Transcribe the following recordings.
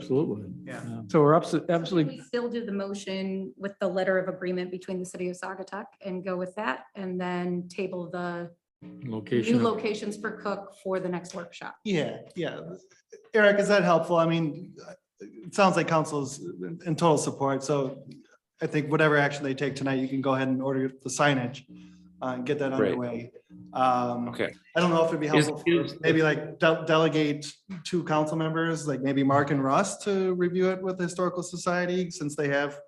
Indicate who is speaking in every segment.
Speaker 1: Absolutely.
Speaker 2: Yeah.
Speaker 1: So we're abso-
Speaker 3: So can
Speaker 1: absolutely,
Speaker 3: we Still do the motion with the letter of agreement between the city of Sagatuck and go with that and then table the new
Speaker 1: location, of-
Speaker 3: locations for Cook for the next workshop.
Speaker 2: Yeah, yeah. Eric, is that helpful? I mean, it sounds like council's in total support, so I think whatever action they take tonight, you can go ahead and order the signage uh, and get that
Speaker 4: Great.
Speaker 2: underway. Um,
Speaker 4: Okay.
Speaker 2: I don't know if it'd be
Speaker 4: Is-
Speaker 2: helpful, for
Speaker 4: is-
Speaker 2: maybe like de- delegate two council members, like maybe Mark and Russ to review it with the Historical Society since they have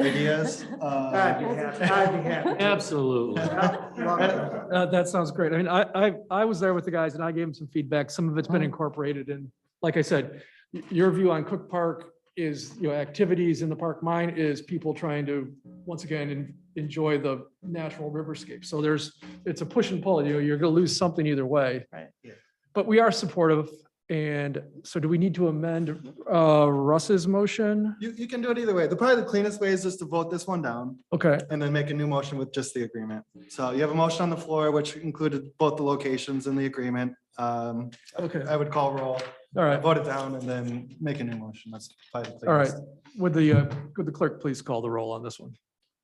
Speaker 2: ideas.
Speaker 5: I'd
Speaker 2: Uh,
Speaker 5: be happy, I'd be happy.
Speaker 1: absolutely. Uh, That sounds great. I mean, I, I, I was there with the guys and I gave them some feedback. Some of it's been incorporated and like I said, y- your view on Cook Park is, you know, activities in the park. Mine is people trying to, once again, en- enjoy the natural riverscape. So there's, it's a push and pull. You know, you're going to lose something either way.
Speaker 5: Right. Yeah.
Speaker 1: But we are supportive. And so do we need to amend uh, Russ's motion?
Speaker 2: You, you can do it either way. The probably the cleanest way is just to vote this one down.
Speaker 1: Okay,
Speaker 2: and then make a new motion with just the agreement. So you have a motion on the floor, which included both the locations and the agreement. Um,
Speaker 1: okay,
Speaker 2: I would call roll,
Speaker 1: all right.
Speaker 2: vote it down, and then make a new motion. That's probably. the
Speaker 1: All right.
Speaker 2: cleanest.
Speaker 1: Would the, uh, would the clerk please call the roll on this one?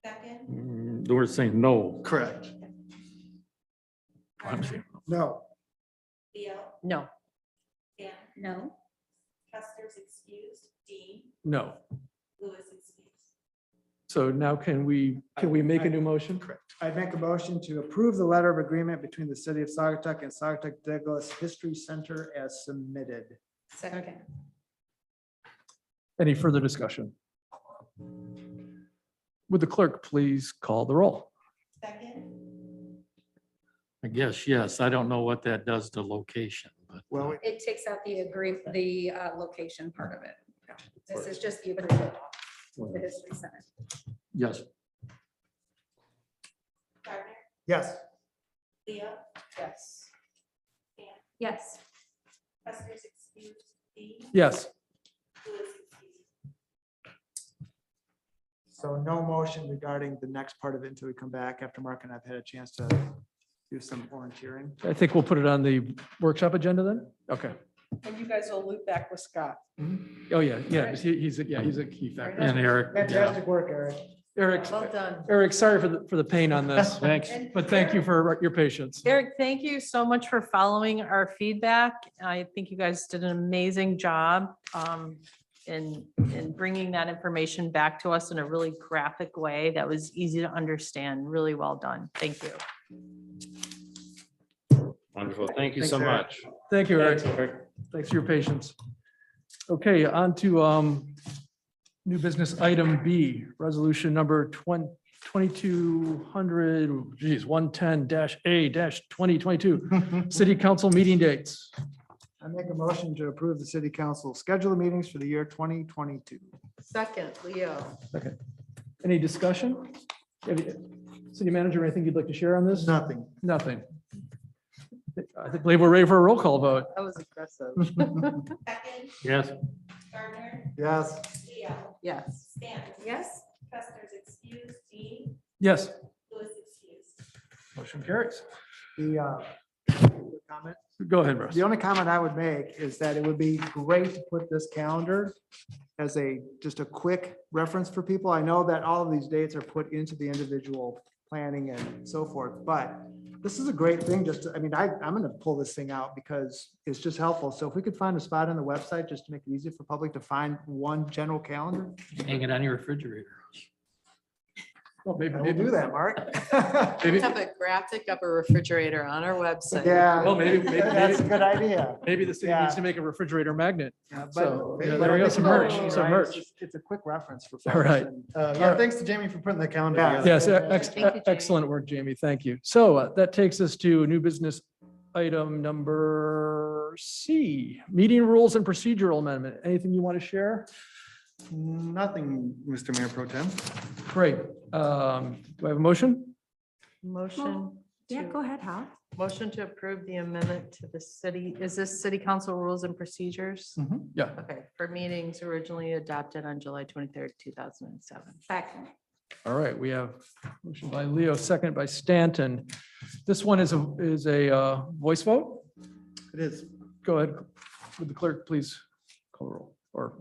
Speaker 4: Mm, The word saying no.
Speaker 2: Correct.
Speaker 4: I'm saying-
Speaker 5: No,
Speaker 6: No,
Speaker 3: No?
Speaker 7: Custer's excused, Dean
Speaker 1: No.
Speaker 7: Lewis excused.
Speaker 1: So now can we, can we make a new motion?
Speaker 5: I make a motion to approve the letter of agreement between the city of Sagatuck and Sagatuck Douglas History Center as submitted.
Speaker 3: Second.
Speaker 1: Any further discussion? Would the clerk please call the roll?
Speaker 7: Second,
Speaker 4: I guess, yes. I don't know what that does to location, but.
Speaker 5: Well, we-
Speaker 3: It takes out the agree, the uh, location part of it. This is just the agreement. with the history center.
Speaker 4: Yes,
Speaker 7: Gardner,
Speaker 5: Yes.
Speaker 7: Leo,
Speaker 6: yes.
Speaker 3: Yes.
Speaker 7: Custer's excused, Dean
Speaker 1: Yes,
Speaker 7: Lewis excused.
Speaker 5: So no motion regarding the next part of it until we come back after Mark and I've had a chance to do some volunteering.
Speaker 1: I think we'll put it on the workshop agenda then? Okay.
Speaker 6: And you guys will loop back with Scott.
Speaker 1: Oh, yeah, yeah, he- he's, a- yeah, he's a key
Speaker 4: and
Speaker 1: factor.
Speaker 4: Eric. yeah.
Speaker 5: Fantastic work, Eric.
Speaker 1: Eric,
Speaker 6: Well done.
Speaker 1: Eric, sorry for the, for the pain on this,
Speaker 4: Thanks.
Speaker 1: but thank you for your patience.
Speaker 6: Eric, thank you so much for following our feedback. I think you guys did an amazing job um, in, in bringing that information back to us in a really graphic way that was easy to understand. Really well done. Thank you.
Speaker 4: Wonderful. Thank you
Speaker 5: Thanks,
Speaker 4: so
Speaker 5: Eric.
Speaker 4: much.
Speaker 1: Thank you, Eric. Thanks for your patience. Okay, on to um, new business item B, resolution number 20 2200, geez, 110-A-2022, city council meeting dates.
Speaker 5: I make a motion to approve the city council schedule of meetings for the year twenty twenty-two.
Speaker 6: Second, Leo.
Speaker 1: Any discussion? Have you- City manager, anything you'd like to share on this?
Speaker 5: Nothing.
Speaker 1: Nothing. I think- believe we're ready for a roll call vote.
Speaker 6: That was aggressive.
Speaker 7: Second,
Speaker 4: Yes,
Speaker 7: Gardner,
Speaker 5: Yes.
Speaker 7: Leo,
Speaker 6: Yes.
Speaker 7: Stanton.
Speaker 3: Yes.
Speaker 7: Custer's excused, Dean
Speaker 1: Yes.
Speaker 7: Lewis excused.
Speaker 1: Motion carries.
Speaker 5: The uh, comment
Speaker 1: Go ahead, Russ.
Speaker 5: The only comment I would make is that it would be great to put this calendar as a, just a quick reference for people. I know that all of these dates are put into the individual planning and so forth, but this is a great thing, just, to- I mean, I, I'm gonna pull this thing out because it's just helpful. So if we could find a spot on the website, just to make it easier for public to find one general calendar,
Speaker 4: hang it on your refrigerator.
Speaker 1: Well, maybe-
Speaker 5: I will do that, Mark.
Speaker 1: Maybe,
Speaker 6: have a graphic of a refrigerator on our website.
Speaker 1: well,
Speaker 5: Yeah,
Speaker 1: maybe, maybe-
Speaker 5: that's a
Speaker 1: maybe,
Speaker 5: good idea.
Speaker 1: maybe the city
Speaker 5: Yeah.
Speaker 1: needs to make a refrigerator magnet.
Speaker 5: Yeah, but-
Speaker 1: So, yeah,
Speaker 5: but
Speaker 1: there we go,
Speaker 5: it's
Speaker 1: some merch,
Speaker 5: helpful,
Speaker 1: some
Speaker 5: right?
Speaker 1: merch.
Speaker 5: It's just- It's a quick reference for.
Speaker 1: All
Speaker 5: folks
Speaker 1: right.
Speaker 5: and-
Speaker 2: Uh,
Speaker 1: All
Speaker 2: Yeah,
Speaker 1: right.
Speaker 2: thanks to Jamie for putting the calendar
Speaker 5: Yeah.
Speaker 2: together.
Speaker 1: Yes, ex-
Speaker 6: Thank you, Jamie.
Speaker 1: excellent work, Jamie. Thank you. So uh, that takes us to new business item number C, meeting rules and procedural amendment. Anything you want to share?
Speaker 2: Nothing, Mr. Mayor Pro Tem.
Speaker 1: Great. Um, Do I have a motion?
Speaker 6: Motion.
Speaker 3: Yeah,
Speaker 6: to-
Speaker 3: go ahead, Hal.
Speaker 6: Motion to approve the amendment to the city, is this city council rules and procedures?
Speaker 1: Yeah.
Speaker 6: Okay, for meetings originally adopted on July twenty-third, two thousand and seven.
Speaker 3: Second.
Speaker 1: All right, we have motion by Leo, second by Stanton. This one is a, is a uh, voice vote?
Speaker 2: It is.
Speaker 1: Go ahead. Would the clerk please call the roll or